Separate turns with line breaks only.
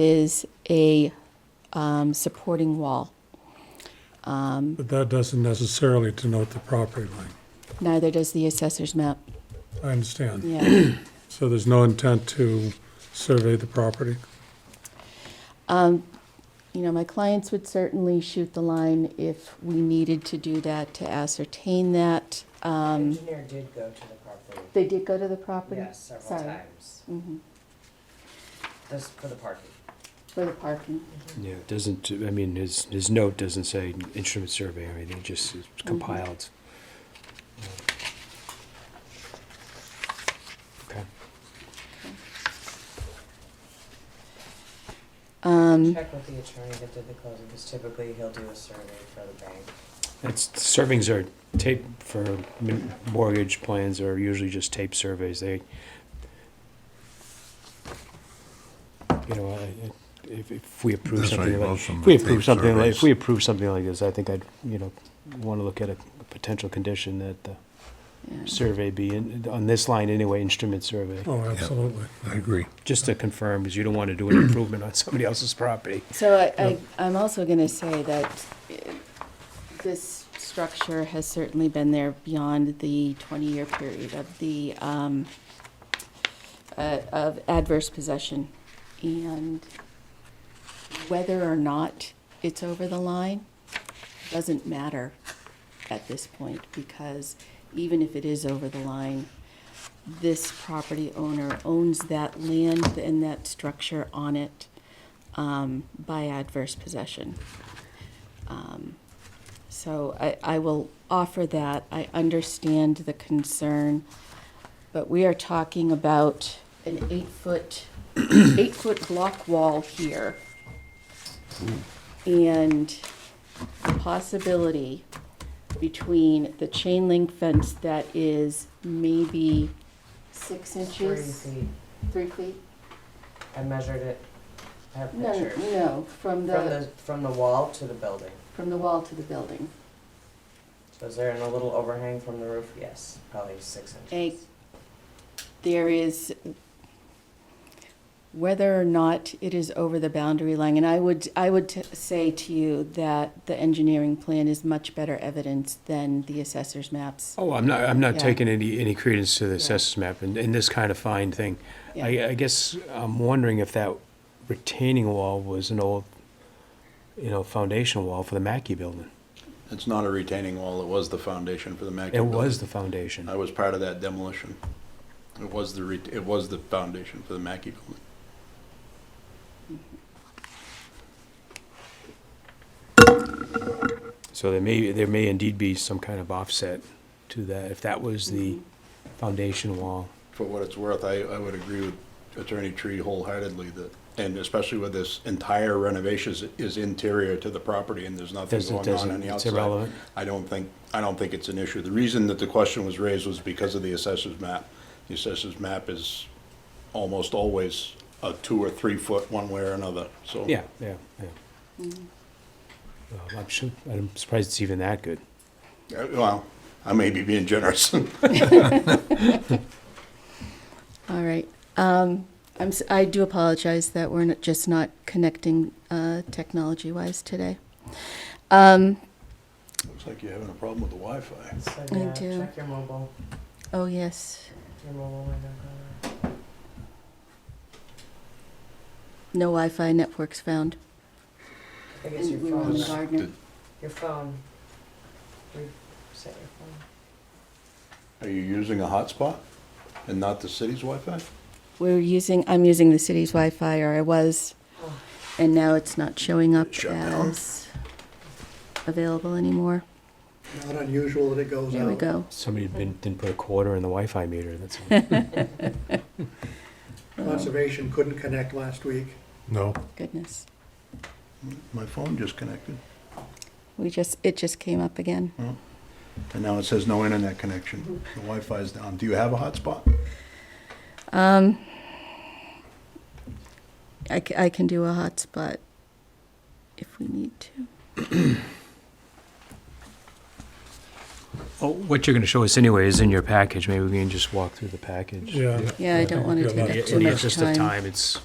is a um, supporting wall.
But that doesn't necessarily denote the property line.
Neither does the assessor's map.
I understand.
Yeah.
So there's no intent to survey the property?
You know, my clients would certainly shoot the line if we needed to do that to ascertain that. Um,
Engineer did go to the property,
They did go to the property?
yes, several
Sorry. Mm-hmm.
times. This, for the parking.
For the parking.
Yeah, it doesn't, I mean, his, his note doesn't say instrument survey or anything, it just is compiled. Okay.
Um,
Check with the attorney that did the closing, because typically he'll do a survey for the bank.
It's, servings are tape for m- mortgage plans are usually just tape surveys, they, you know, I- I- if, if we approve
That's
something
right,
like,
most of
if
them
we
are
approve
tape
something like, if
surveys.
we approve something like this, I think I'd, you know, wanna look at a a potential condition that the
Yeah.
survey be, in- on this line anyway, instrument survey.
Oh, absolutely.
I agree.
Just to confirm, because you don't want to do an improvement on somebody else's property.
So I, I, I'm also gonna say that eh, this structure has certainly been there beyond the twenty-year period of the, um, uh, of adverse possession. And whether or not it's over the line doesn't matter at this point, because even if it is over the line, this property owner owns that land and that structure on it um, by adverse possession. Um, So I, I will offer that. I understand the concern, but we are talking about an eight-foot, eight-foot block wall here. And the possibility between the chain link fence that is maybe six
Three
inches,
feet,
three feet?
I measured it, I have
No,
pictures.
no, from
From
the,
the, from the wall to the building.
from the wall to the building.
So is there a little overhang from the roof? Yes, probably six
a,
inches.
there is, whether or not it is over the boundary line, and I would, I would t- say to you that the engineering plan is much better evidence than the assessor's maps.
Oh, I'm not, I'm not
Yeah.
taking any, any credence to the
Yeah.
assessors map and, and this kind of fine thing.
Yeah.
I, I guess I'm wondering if that retaining wall was an old, you know, foundation wall for the Mackey building.
It's not a retaining wall, it was the foundation for the Mackey
It
building.
was the foundation.
I was part of that demolition. It was the, re- it was the foundation for the Mackey building.
So there may, there may indeed be some kind of offset to that, if that was the
Mm-hmm.
foundation wall.
For what it's worth, I, I would agree with Attorney Tree wholeheartedly that, and especially with this entire renovation is- is interior to the property and there's nothing
Doesn't,
going on on
doesn't,
the
it's
outside.
irrelevant.
I don't think, I don't think it's an issue. The reason that the question was raised was because of the assessor's map. The assessor's map is almost always a two or three foot one way or another, so.
Yeah, yeah, yeah. Well, I'm sure, I'm surprised it's even that good.
Uh, Well, I may be being generous.
All right, um, I'm, s- I do apologize that we're not- just not connecting, uh, technology-wise today. Um,
Looks like you're having a problem with the Wi-Fi.
So
I
yeah,
do.
check your mobile,
oh, yes,
your mobile window.
no Wi-Fi networks found.
I think it's your
And we were on the
phone, right?
gardener.
Your phone. Reset your phone.
Are you using a hotspot and not the city's Wi-Fi?
We're using, I'm using the city's Wi-Fi, or I was,
Oh.
and now it's not showing up
Shut down.
as available anymore.
Not unusual that it goes
There we
out.
go.
Somebody didn't, didn't put a quarter in the Wi-Fi meter, that's all.
Conservation couldn't connect last week.
No.
Oh, Goodness.
My phone just connected,
We just, it just came up again.
and now it says no internet connection. The Wi-Fi is down. Do you have a hotspot?
Um, I, c- I can do a hotspot if we need to.
Oh, what you're gonna show us anyway is in your package, maybe we can just walk through the package.
Yeah.
Yeah, I don't want to
Yeah,
take up
yeah,
It's
too much
just of
time.
time, it's,